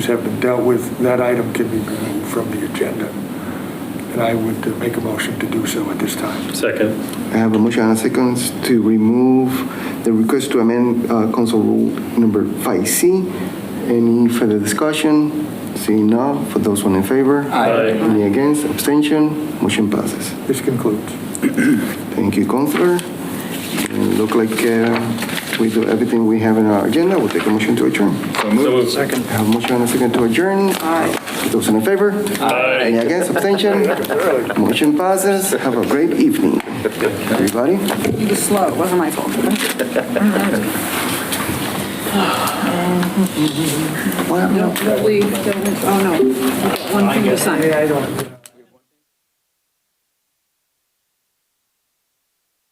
have been dealt with, that item can be removed from the agenda. And I would uh, make a motion to do so at this time. Second. I have a motion and a second to remove the request to amend uh, council rule number 5C. Any further discussion? Seeing none, for those one in favor? Aye. Any against, abstention, motion passes. This concludes. Thank you, Counselor. And Look like uh, we do everything we have in our agenda, we'll take a motion to adjourn. So moved. I have a motion and a second to adjourn. Aye. Those in favor? Aye. Any against, abstention? Motion passes. Have a great evening, everybody. You were slow, it wasn't my fault. Well, Don't leave, don't, oh no, We've got one thing to sign. I don't.